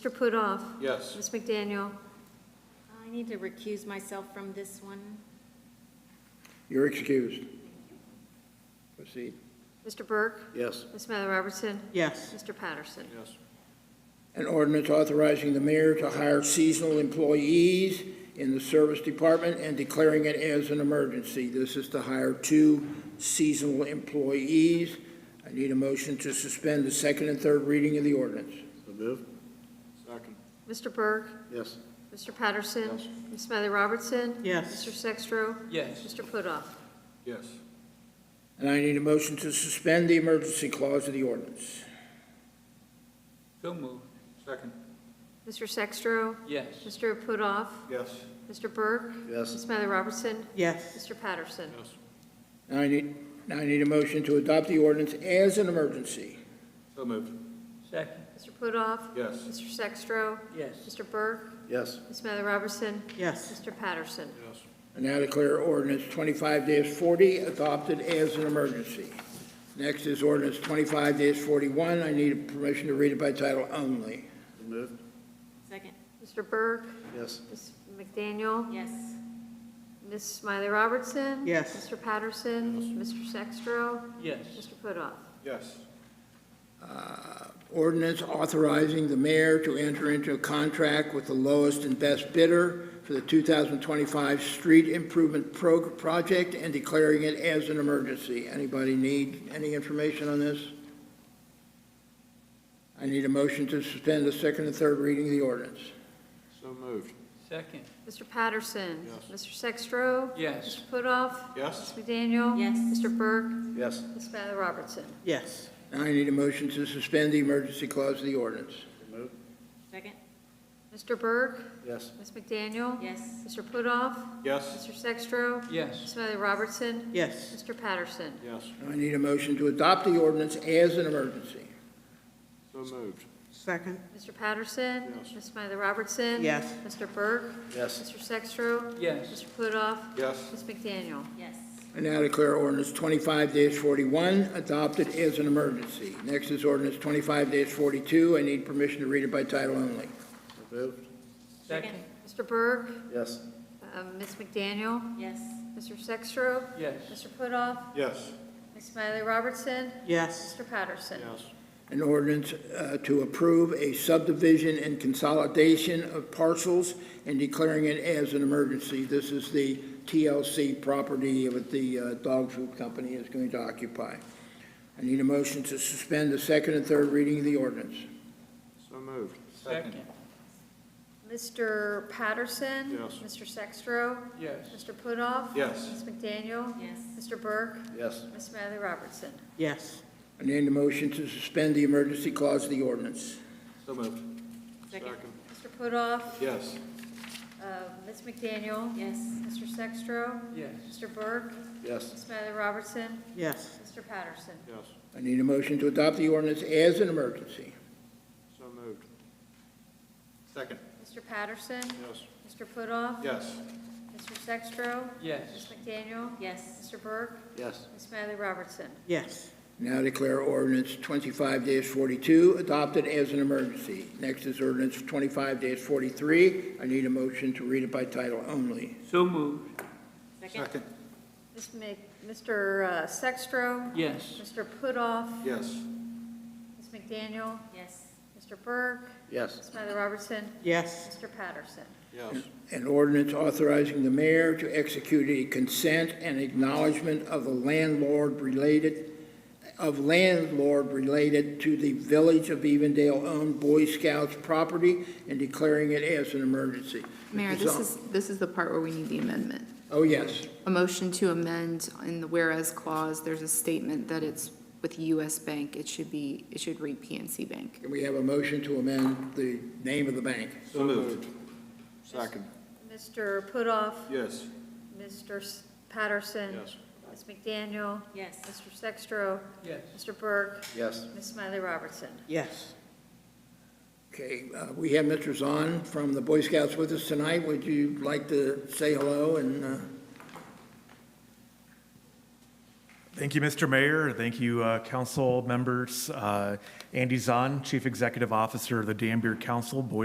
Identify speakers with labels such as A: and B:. A: Mr. Pudoff?
B: Yes.
A: Ms. McDaniel?
C: I need to recuse myself from this one.
D: You're excused. Proceed.
A: Mr. Burke?
D: Yes.
A: Ms. Smiley Robertson?
E: yes,
A: Mr. Patterson?
B: Yes.
D: An ordinance authorizing the mayor to hire seasonal employees in the service department and declaring it as an emergency. This is to hire two seasonal employees. I need a motion to suspend the second and third reading of the ordinance.
B: So moved. Second.
A: Mr. Burke?
B: Yes.
A: Mr. Patterson?
B: Yes.
A: Ms. Smiley Robertson?
E: yes,
A: Mr. Sextro?
F: yes,
A: Mr. Pudoff?
B: Yes.
D: And I need a motion to suspend the emergency clause of the ordinance.
F: so moved,
B: Second.
A: Mr. Sextro?
F: yes,
A: Mr. Pudoff?
B: Yes.
A: Mr. Burke? Ms.
D: Yes.
A: Smiley Robertson?
E: yes,
A: Mr. Patterson?
B: Yes.
D: And I need, now I need a motion to adopt the ordinance as an emergency.
B: So moved.
F: second,
A: Mr. Pudoff?
B: Yes.
A: Mr. Sextro?
F: yes,
A: Mr. Burke?
B: Yes.
A: Ms. Smiley Robertson?
E: yes,
A: Mr. Patterson?
B: Yes.
D: And now declare ordinance twenty-five forty adopted as an emergency. Next is ordinance twenty-five forty-one. I need permission to read it by title only.
B: So moved.
C: Second,
A: Mr. Burke?
B: Yes.
A: Ms. McDaniel?
C: yes,
A: Ms. Smiley Robertson?
E: Yes.
A: Mr. Patterson? Mr. Sextro?
F: yes,
A: Mr. Pudoff?
B: Yes.
D: Uh, Ordinance authorizing the mayor to enter into a contract with the lowest and best bidder for the two thousand twenty-five street improvement pro- project and declaring it as an emergency. Anybody need any information on this? I need a motion to suspend the second and third reading of the ordinance.
B: So moved.
F: second,
A: Mr. Patterson? Mr. Sextro? Mr.
F: yes,
A: Pudoff?
B: Yes.
A: Ms. McDaniel?
C: Yes.
A: Mr. Burke?
B: Yes.
A: Ms. Smiley Robertson?
E: yes,
D: Now I need a motion to suspend the emergency clause of the ordinance.
B: So moved.
C: second,
A: Mr. Burke?
B: Yes.
A: Ms. McDaniel?
C: yes,
A: Mr. Pudoff?
B: Yes.
A: Mr. Sextro? Ms.
F: yes,
A: Smiley Robertson?
E: yes,
A: Mr. Patterson?
B: Yes.
D: Now I need a motion to adopt the ordinance as an emergency.
B: So moved.
E: second,
A: Mr. Patterson?
B: Yes.
A: Ms. Smiley Robertson?
E: yes,
A: Mr. Burke?
B: Yes.
A: Mr. Sextro?
F: yes,
A: Mr. Pudoff?
B: Yes.
A: Ms. McDaniel?
C: yes,
D: I now declare ordinance twenty-five forty-one adopted as an emergency. Next is ordinance twenty-five forty-two. I need permission to read it by title only.
B: So moved.
F: second,
A: Mr. Burke?
B: Yes.
A: uh, Ms. McDaniel?
C: yes,
A: Mr. Sextro?
F: yes,
A: Mr. Pudoff?
B: Yes.
A: Ms. Smiley Robertson?
E: yes,
A: Mr. Patterson?
B: Yes.
D: An ordinance uh, to approve a subdivision and consolidation of parcels and declaring it as an emergency. This is the TLC property that the uh, dog food company is going to occupy. I need a motion to suspend the second and third reading of the ordinance.
B: So moved.
F: second,
A: Mr. Patterson?
B: Yes.
A: Mr. Sextro?
F: yes,
A: Mr. Pudoff?
B: Yes.
A: Ms. McDaniel?
C: yes,
A: Mr. Burke?
B: Yes.
A: Ms. Smiley Robertson?
E: yes,
D: I need a motion to suspend the emergency clause of the ordinance.
B: So moved.
C: second,
A: Mr. Pudoff?
B: Yes.
A: uh, Ms. McDaniel?
C: yes,
A: Mr. Sextro?
F: yes,
A: Mr. Burke?
B: Yes.
A: Ms. Smiley Robertson?
E: yes,
A: Mr. Patterson?
B: Yes.
D: I need a motion to adopt the ordinance as an emergency.
B: So moved. Second.
A: Mr. Patterson?
B: Yes.
A: Mr. Pudoff?
B: Yes.
A: Mr. Sextro? Ms.
F: yes,
A: McDaniel?
C: yes,
A: Mr. Burke?
B: Yes.
A: Ms. Smiley Robertson?
E: yes,
D: Now declare ordinance twenty-five forty-two adopted as an emergency. Next is ordinance twenty-five forty-three. I need a motion to read it by title only.
F: so moved,
C: second,
A: Ms. Mc, Mr. uh, Sextro?
F: yes,
A: Mr. Pudoff?
B: Yes.
A: Ms. McDaniel?
C: yes,
A: Mr. Burke?
B: Yes.
A: Ms. Smiley Robertson?
E: yes,
A: Mr. Patterson?
B: Yes.
D: An ordinance authorizing the mayor to execute a consent and acknowledgement of the landlord related, of landlord related to the Village of Evendale-owned Boy Scouts property and declaring it as an emergency.
G: Mayor,
D: Mr.
G: this
D: Zong-
G: is, this is the part where we need the amendment.
D: Oh, yes.
G: A motion to amend in the whereas clause, there's a statement that it's with US Bank. It should be, it should read PNC Bank.
D: Can we have a motion to amend the name of the bank?
B: So moved. Second.
A: Mr. Pudoff?
B: Yes.
A: Mr. S- Patterson?
B: Yes.
A: Ms. McDaniel?
C: yes,
A: Mr. Sextro?
F: yes,
A: Mr. Burke?
B: Yes.
A: Ms. Smiley Robertson?
E: yes.
D: Okay, uh, we have Mr. Zahn from the Boy Scouts with us tonight. Would you like to say hello and uh,
E: Thank you, Mr. Mayor. Thank you, uh, council members. Uh, Andy Zahn, Chief Executive Officer of the Danbury Council, Boise